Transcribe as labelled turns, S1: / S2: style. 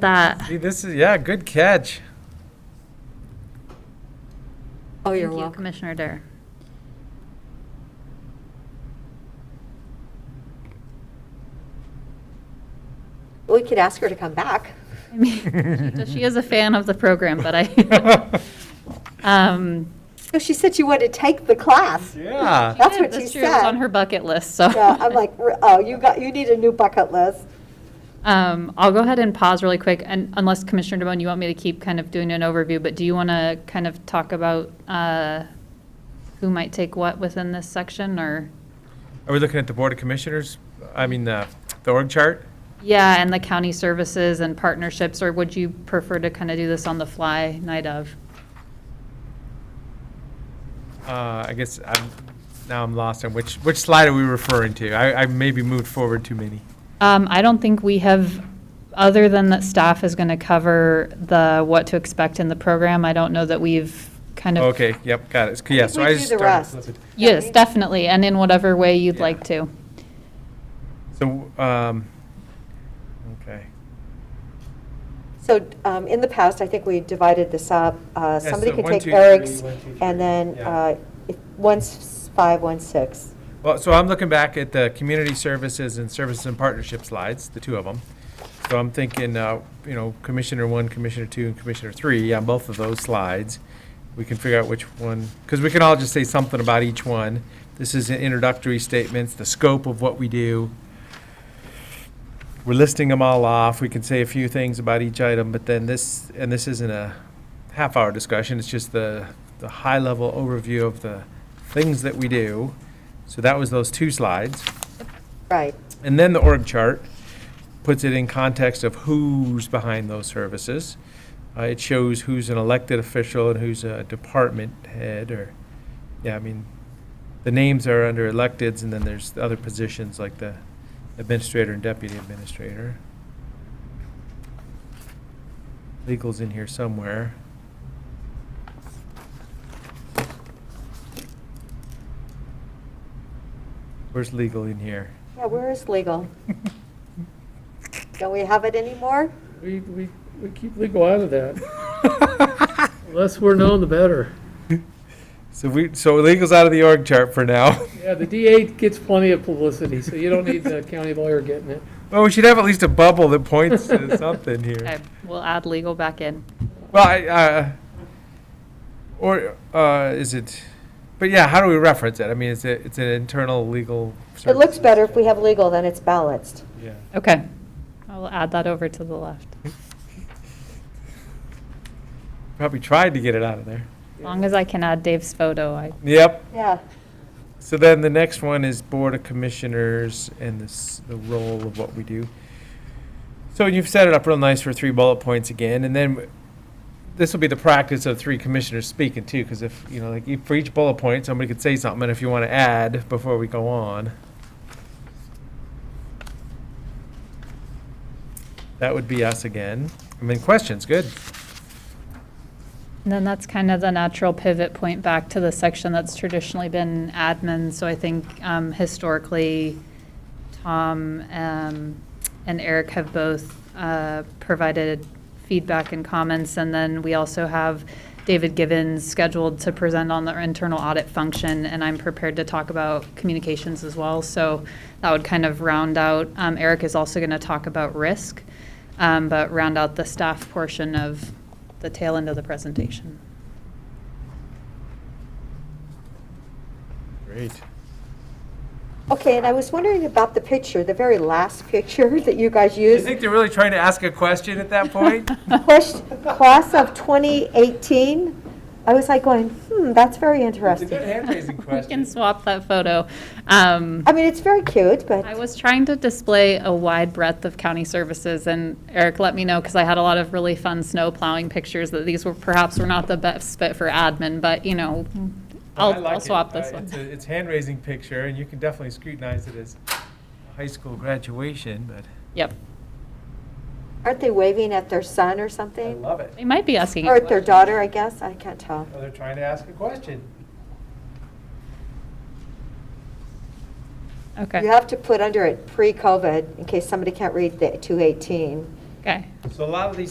S1: that.
S2: Gee, this is, yeah, good catch.
S3: Oh, you're
S1: Thank you,
S3: welcome.
S1: Commissioner Dare.
S3: We could ask her to come back.
S1: I mean, She is a fan of the program, but I, um,
S3: So she said she wanted to take the class.
S2: Yeah.
S3: That's
S1: yeah,
S3: what she
S1: year was on
S3: said.
S1: her bucket list, so.
S3: Yeah, I'm like, "R- oh, you got, you need a new bucket list.
S1: Um, I'll go ahead and pause really quick, and unless Commissioner DeBonne, you want me to keep kind of doing an overview, but do you want to kind of talk about uh, who might take what within this section, or?
S2: Are we looking at the Board of Commissioners? I mean, the, the org chart?
S1: Yeah, and the county services and partnerships, or would you prefer to kind of do this on the fly night of?
S2: Uh, I guess I'm, now I'm lost on which, which slide are we referring to? I, I maybe moved forward too many.
S1: Um, I don't think we have, other than that staff is going to cover the what to expect in the program, I don't know that we've kind of.
S2: Okay, yep, got it. Yeah,
S3: think
S2: so
S3: we
S2: I
S3: do
S2: just
S3: the
S2: started.
S3: rest.
S2: flipping.
S1: Yes, definitely, and in whatever way you'd
S2: Yeah.
S1: like to.
S2: So, um, okay.
S3: So um, in the past, I think we divided this up. Uh,
S2: Yeah,
S3: Somebody
S2: so
S3: could
S2: one,
S3: take
S2: two, three,
S3: Eric's,
S2: one, two, three,
S3: and then
S2: yeah.
S3: uh, if- one's five, one's six.
S2: Well, so I'm looking back at the community services and services and partnership slides, the two of them. So I'm thinking, uh, you know, Commissioner one, Commissioner two, and Commissioner three, on both of those slides. We can figure out which one, because we can all just say something about each one. This is introductory statements, the scope of what we do. We're listing them all off. We can say a few things about each item, but then this, and this isn't a half-hour discussion, it's just the, the high-level overview of the things that we do. So that was those two slides.
S3: Right.
S2: And then the org chart puts it in context of who's behind those services. Uh, it shows who's an elected official and who's a department head or, yeah, I mean, the names are under electeds and then there's the other positions like the administrator and deputy administrator. Legal's in here somewhere. Where's legal in here?
S3: Yeah, where is legal? Don't we have it anymore?
S4: We, we, we keep legal out of that. The Less we're known, the better.
S2: So we, so legal's out of the org chart for now.
S4: Yeah, the DA gets plenty of publicity, so you don't need the county lawyer getting it.
S2: Well, we should have at least a bubble that points to something
S1: Okay,
S2: here.
S1: we'll add legal back in.
S2: Well, I, uh, or, uh, is it, but yeah, how do we reference it? I mean, it's a, it's an internal legal.
S3: It looks
S2: services
S3: better if we
S2: chart.
S3: have legal, then it's balanced.
S2: Yeah.
S1: Okay, I will add that over to the left.
S2: Mm-hmm. Probably tried to get it out of there.
S1: As long as I can add Dave's photo, I,
S2: Yep.
S3: Yeah.
S2: So then the next one is Board of Commissioners and this, the role of what we do. So you've set it up real nice for three bullet points again, and then this will be the practice of three commissioners speaking too, because if, you know, like, e- for each bullet point, somebody could say something, and if you want to add before we go on. That would be us again. I mean, questions, good.
S1: and then that's kind of the natural pivot point back to the section that's traditionally been admin. So I think um, historically, Tom um, and Eric have both uh, provided feedback and comments. And then we also have David Givens scheduled to present on the internal audit function, and I'm prepared to talk about communications as well. So that would kind of round out, um, Eric is also going to talk about risk, um, but round out the staff portion of the tail end of the presentation.
S2: Great.
S3: Okay, and I was wondering about the picture, the very last picture that you guys
S2: You
S3: used.
S2: think they're really trying to ask a question at that point?
S3: Question, class of 2018, I was like going, hmm, that's very interesting.
S2: hand-raising
S1: We can swap that photo. Um,
S3: I mean, it's very cute, but.
S1: I was trying to display a wide breadth of county services, and Eric let me know, because I had a lot of really fun snow plowing pictures, that these were perhaps were not the best fit for admin, but, you know,
S2: I
S1: I'll,
S2: like
S1: I'll
S2: it.
S1: swap
S2: Uh,
S1: this
S2: It's,
S1: one.
S2: a- it's hand-raising picture, and you can definitely scrutinize it as a high school graduation, but
S1: Yep.
S3: Aren't they waving at their son or
S2: I
S3: something?
S2: love it.
S1: They might be asking. a
S3: Or at their
S1: question.
S3: daughter, I guess, I can't tell.
S2: Oh, they're trying to ask a question.
S1: Okay.
S3: You have to put under it pre-COVID, in case somebody can't read the 218.
S1: Okay.
S2: So a lot of these